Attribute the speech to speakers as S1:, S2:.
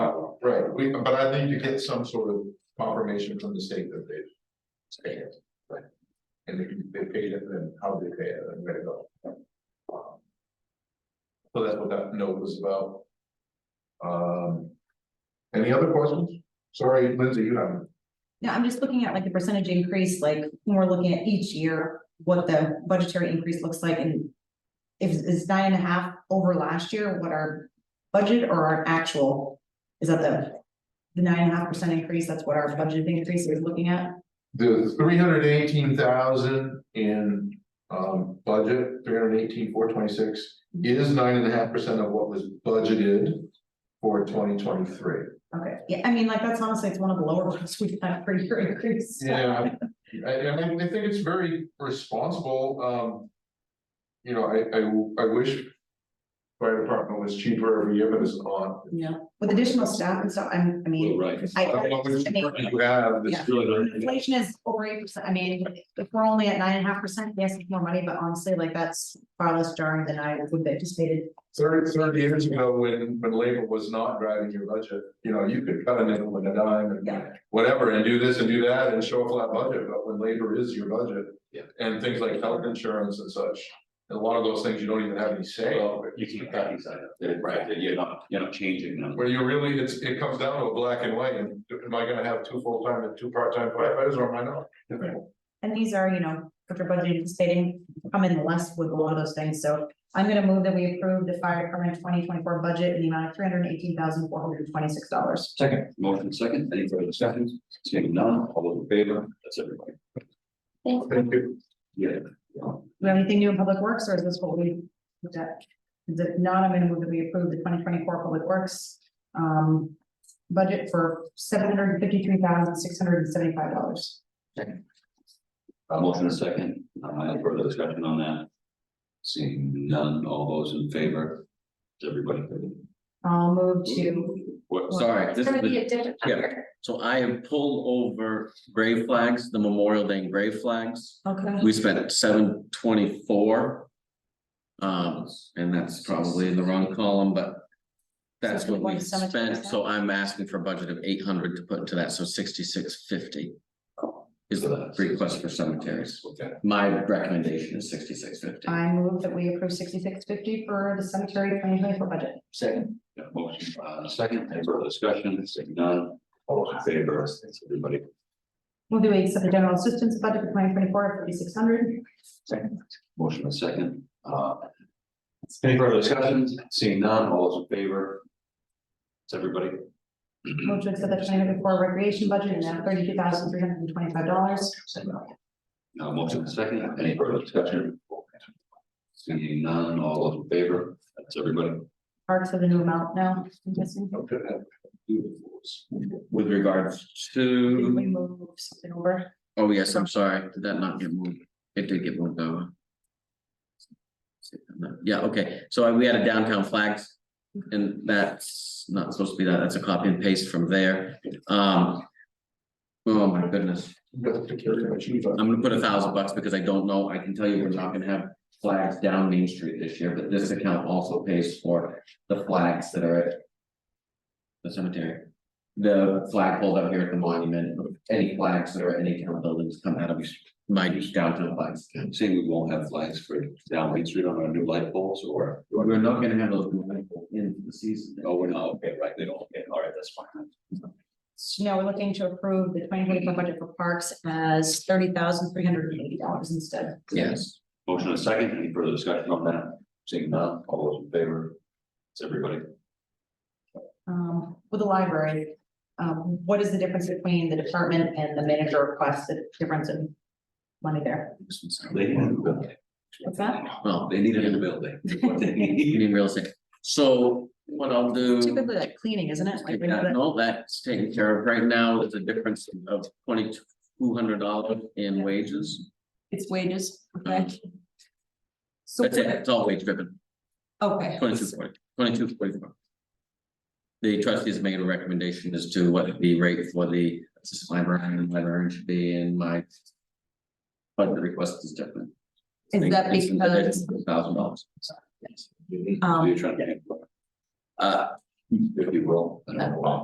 S1: We, but I need to get some sort of confirmation from the state that they. Pay it. Right. And if they paid it, then how they pay it and where to go. Um, So that's what that note was about. Um. Any other questions? Sorry, Lindsay, you haven't.
S2: No, I'm just looking at like the percentage increase, like when we're looking at each year, what the budgetary increase looks like and. If it's nine and a half over last year, what our budget or our actual, is that the? The nine and a half percent increase, that's what our budget increase is looking at,
S1: The three hundred eighteen thousand in um budget, three hundred eighteen, four twenty-six is nine and a half percent of what was budgeted for twenty twenty-three.
S2: okay, yeah, I mean, like, that's honestly, it's one of the lower ones we've had per year increase.
S1: Yeah, I, I mean, I think it's very responsible, um. You know, I, I, I wish fire department was cheaper every year, but it's not.
S2: Yeah, with additional staff and stuff, I'm, I mean.
S3: Right.
S2: I-
S1: I don't know which
S2: I mean-
S1: department You have, this-
S2: Yeah. Inflation is over eight percent, I mean, if we're only at nine and a half percent, yes, it's more money, but honestly, like, that's far less jarring than I would have anticipated.
S1: thirty, thirty years ago, when, when labor was not driving your budget, you know, you could cut a nickel and a dime and.
S2: Yeah.
S1: Whatever, and do this and do that and show a flat budget, but when labor is your budget.
S3: Yeah.
S1: And things like health insurance and such, and a lot of those things you don't even have any say over.
S3: You keep that inside of it, right, that you're not, you're not changing them.
S1: Where you really, it's, it comes down to a black and white, and am I gonna have two full-time and two part-time firefighters, or am I not?
S2: And these are, you know, after budget anticipating, come in less with a lot of those things, so I'm gonna move that we approve the fire department twenty twenty-four budget in the amount of three hundred and eighteen thousand four hundred and twenty-six dollars.
S3: Second, motion second, any further discussion? Seeing none, all those in favor, that's everybody.
S1: Thank you.
S3: Yeah. Uh,
S2: Do we have anything new in public works, or is this what we looked at? Is it not, I'm gonna move that we approve the twenty twenty-four public works, um, budget for seven hundred and fifty-three thousand six hundred and seventy-five dollars.
S3: Uh, motion and second, uh, any further discussion on that? Seeing none, all those in favor, it's everybody.
S2: I'll move to,
S3: What, sorry, this
S4: It's
S3: is
S4: gonna be
S3: the,
S4: a different
S5: yeah.
S4: number.
S5: So I have pulled over grave flags, the Memorial Day grave flags.
S2: okay,
S5: We spent seven twenty-four. Um, and that's probably in the wrong column, but. That's what we
S2: So it's one
S5: spent, so I'm asking for a budget of eight hundred to put into that, so sixty-six fifty. Is the request for cemeteries.
S3: Okay,
S5: My recommendation is sixty-six fifty.
S2: I move that we approve sixty-six fifty for the cemetery twenty twenty-four budget.
S3: second. Yeah, motion, uh, second, any further discussion, seeing none, all those in favor, it's everybody.
S2: Move that we accept the general assistance budget for twenty twenty-four at thirty-six hundred.
S3: Second. Motion and second, uh. Any further discussions? Seeing none, all those in favor? It's everybody.
S2: Move to accept the twenty twenty-four recreation budget in that thirty-two thousand three hundred and twenty-five dollars.
S3: Now, Uh, motion and second, any further discussion? Seeing none, all those in favor? That's everybody.
S2: Parks have a new amount now, I'm guessing.
S3: Okay.
S5: With regards
S3: Mm-hmm.
S2: Did we
S5: to,
S2: move something over?
S5: oh yes, I'm sorry, did that not get moved? It did get moved over. Yeah, okay, so we had a downtown flags. And that's not supposed to be that, that's a copy and paste from there, um. Oh my goodness, I'm gonna put a thousand bucks because I don't know, I can tell you we're not gonna have flags down Main Street this year, but this account also pays for the flags that are at. The cemetery, the flag pulled up here at the monument, any flags that are at any town buildings come out of my downtown flags.
S3: Seeing we won't have flags for down Main Street on our new light poles or,
S5: We're not gonna have those in the season.
S3: oh, we're not, okay, right, they don't, okay, all right, that's fine.
S2: So now we're looking to approve the twenty twenty-four budget for parks as thirty thousand three hundred and eighty dollars instead.
S5: Yes,
S3: Motion and second, any further discussion on that? Seeing none, all those in favor? It's everybody.
S2: Um, with the library, um, what is the difference between the department and the manager request, the difference in money there?
S5: this one's-
S3: They need a new building.
S2: What's that?
S5: well,
S3: They need a new building.
S5: you mean real estate, so what I'll do.
S2: Typically like cleaning, isn't it? Like
S5: Take
S2: we know
S5: that,
S2: that-
S5: no, that's taken care of. Right now, it's a difference of twenty-two hundred dollars in wages.
S2: It's wages,
S5: Um,
S2: okay? So,
S5: That's it, it's all wage driven,
S2: okay.
S5: twenty-two forty, twenty-two forty-four. The trustees made a recommendation as to what the rate for the assistant librarian and librarian should be in my. budget request is different.
S2: Is that because,
S5: Thousand dollars.
S3: You're
S2: um,
S3: trying to.
S5: Uh,
S3: If you will, I don't know.